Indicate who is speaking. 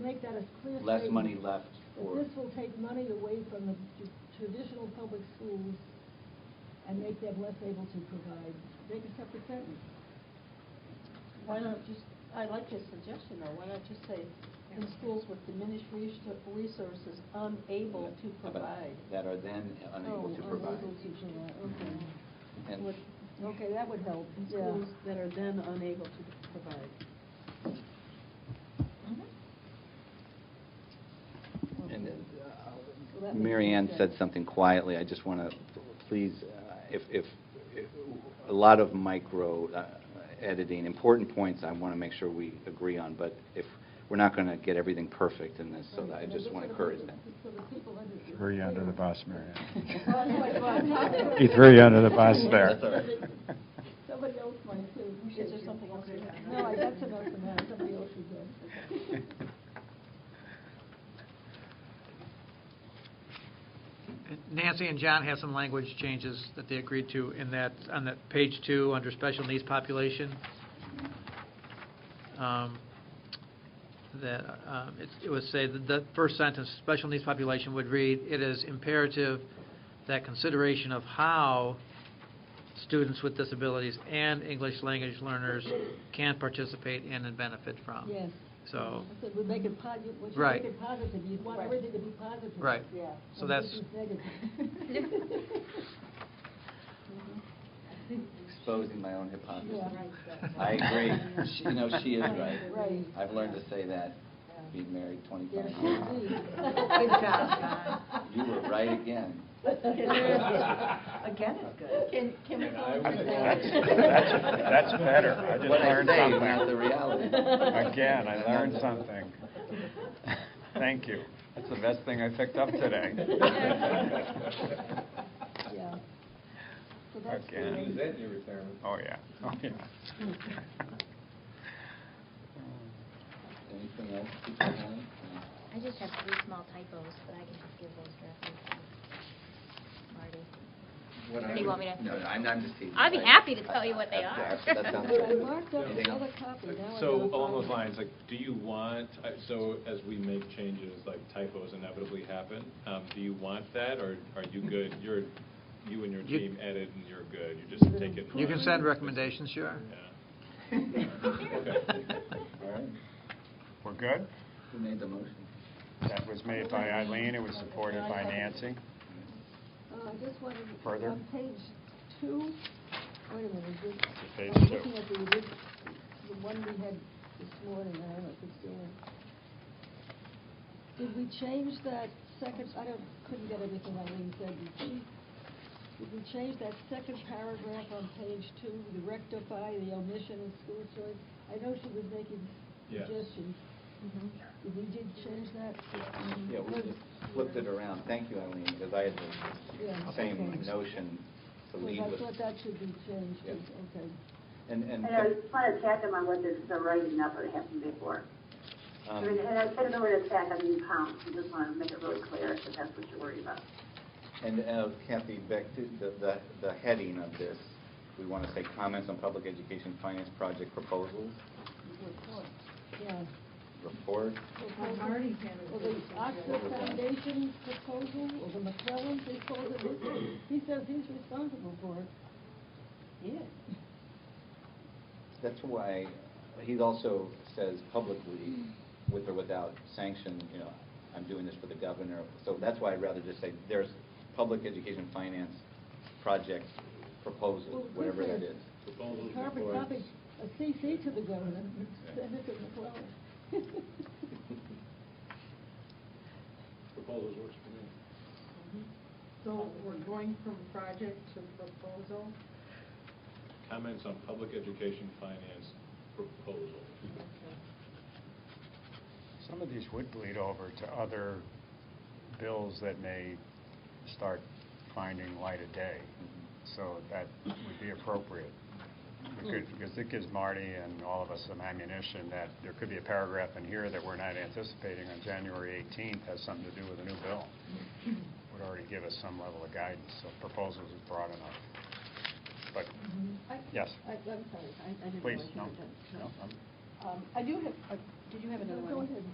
Speaker 1: make that a clear statement.
Speaker 2: less money left
Speaker 1: That
Speaker 2: for,
Speaker 1: this will take money away from the t- traditional public schools and make them less able to provide, make a separate sentence.
Speaker 3: Why not just, I like your suggestion though, why not just say, in schools with diminished res- resources unable to
Speaker 2: How about
Speaker 3: provide?
Speaker 2: that are then unable to
Speaker 3: Oh,
Speaker 2: provide.
Speaker 3: Unable to provide, okay.
Speaker 2: And
Speaker 3: With-
Speaker 1: Okay, that would help.
Speaker 3: in Schools that are then unable to provide.
Speaker 2: And then, uh,
Speaker 3: Well, that makes
Speaker 2: Mary Ann
Speaker 3: sense.
Speaker 2: said something quietly, I just want to, please, uh, if, if, if- a lot of micro uh, editing, important points I want to make sure we agree on, but if, we're not going to get everything perfect in this, so that I just want to encourage that.
Speaker 1: So the people understand.
Speaker 4: Throw you under the bus, Mary
Speaker 1: God.
Speaker 4: Ann. You threw you under the bus there.
Speaker 2: That's all right.
Speaker 1: Somebody else might too.
Speaker 3: Is there something else you have?
Speaker 1: No, I got enough for now, somebody else should go.
Speaker 5: Nancy and John have some language changes that they agreed to in that, on that page two, under special needs population. Um, That, um, it- it would say, that the first sentence, special needs population would read, "It is imperative that consideration of how students with disabilities and English language learners can participate in and benefit from."
Speaker 1: Yes. I
Speaker 5: Um, So,
Speaker 1: said, we make it positive, we should
Speaker 5: Right.
Speaker 1: make it positive, you want
Speaker 3: Right.
Speaker 1: everything to be positive.
Speaker 5: Right.
Speaker 3: Yeah.
Speaker 5: so
Speaker 1: And
Speaker 5: that's...
Speaker 1: this is negative.
Speaker 2: Exposing my own hypocrisy.
Speaker 1: Yeah.
Speaker 2: I agree. She- You know, she is right.
Speaker 1: Right.
Speaker 2: I've learned to say that, being married
Speaker 1: Yes,
Speaker 2: 25
Speaker 1: indeed.
Speaker 2: years.
Speaker 3: Good job, John.
Speaker 2: You were right again.
Speaker 3: Again, it's good. Can, can we? go over
Speaker 4: That's,
Speaker 3: that?
Speaker 4: that's, that's better. I just
Speaker 2: What I
Speaker 4: learned
Speaker 2: say is
Speaker 4: something.
Speaker 2: not the reality.
Speaker 4: Again, I learned something. Thank you. That's the best thing I picked up today.
Speaker 1: Yeah. So that's the
Speaker 4: Again.
Speaker 1: way-
Speaker 6: your retirement?
Speaker 4: Oh, yeah, oh, yeah.
Speaker 2: Anything else people want?
Speaker 7: I just have three small typos, but I can just give those directly to Marty.
Speaker 2: What
Speaker 7: Or do
Speaker 2: I
Speaker 7: you
Speaker 2: would-
Speaker 7: want me to-
Speaker 2: No, no, I'm I'm just teasing.
Speaker 7: I'd be
Speaker 2: I-
Speaker 7: happy to tell you what they
Speaker 2: I-
Speaker 7: are.
Speaker 2: That that sounds
Speaker 1: But I
Speaker 2: good.
Speaker 1: marked up
Speaker 2: Anything
Speaker 1: another
Speaker 2: else?
Speaker 1: copy, now I
Speaker 6: So
Speaker 1: know
Speaker 6: along those
Speaker 1: it's
Speaker 6: lines, like, do you want, I- so as we make changes, like typos inevitably happen, um, do you want that, or are you good? You're, you and your
Speaker 5: You-
Speaker 6: team edit and you're good, you just take it. and
Speaker 5: you
Speaker 6: run
Speaker 5: can
Speaker 6: it?
Speaker 5: send recommendations, sure.
Speaker 6: Yeah.
Speaker 2: All right.
Speaker 4: We're good?
Speaker 2: Who made the motion?
Speaker 4: That was made by Eileen, it was supported by Nancy.
Speaker 1: Uh, I just wanted,
Speaker 4: Further?
Speaker 1: on page two, wait a minute, is this?
Speaker 4: Page
Speaker 1: I'm
Speaker 4: two.
Speaker 1: looking at the, orig- the one we had this morning, I don't know if it's still in. Did we change that second, I don't, couldn't get everything Eileen said. Did she, did we change that second paragraph on page two, to rectify the omission of school choice? I know she was making
Speaker 6: Yes.
Speaker 1: suggestions. Did we did change that?
Speaker 2: Yeah, we just flipped it around. Thank you, Eileen, because I had
Speaker 1: Yeah,
Speaker 2: the same
Speaker 1: okay.
Speaker 2: notion to
Speaker 1: So
Speaker 2: lead
Speaker 1: I
Speaker 2: with.
Speaker 1: thought that should be changed,
Speaker 2: Yeah.
Speaker 1: okay.
Speaker 2: And, and,
Speaker 8: And I just want to tack them on what this, the writing up that happened before. I mean,
Speaker 2: um,
Speaker 8: and I said the word attack, I mean pounds, I just want to make it really clear that that's what you're worried about.
Speaker 2: and uh, Kathy, back to the, the, the heading of this, we want to say comments on public education finance project proposals,
Speaker 1: Yeah.
Speaker 2: report.
Speaker 1: Marty's Or the Oxford Foundation proposal, or the McClellan, they call it, he says he's responsible for it.
Speaker 3: Yeah.
Speaker 2: That's why, he also says publicly, with or without sanction, you know, I'm doing this for the governor. So that's why I'd rather just say, there's public education finance project proposal, whatever it is.
Speaker 6: Proposals,
Speaker 1: Carbon
Speaker 6: reports.
Speaker 1: copy, a CC to the governor, send it to McClellan. Mm-hmm.
Speaker 6: Proposals works for me.
Speaker 9: So we're going from project to proposal?
Speaker 6: Comments on public education finance proposal.
Speaker 4: Some of these would bleed over to other bills that may start finding light of day, so that would be appropriate. We could- Because it gives Marty and all of us some ammunition that there could be a paragraph in here that we're not anticipating on January 18th has something to do with a new bill. Would already give us some level of guidance, so proposals is broad enough. But, yes,
Speaker 3: I, I'm sorry, I, I didn't.
Speaker 4: please,
Speaker 3: realize you
Speaker 4: no,
Speaker 3: were done.
Speaker 4: no, I'm-
Speaker 3: Um, I do have, uh, did you have another one?
Speaker 1: Go ahead.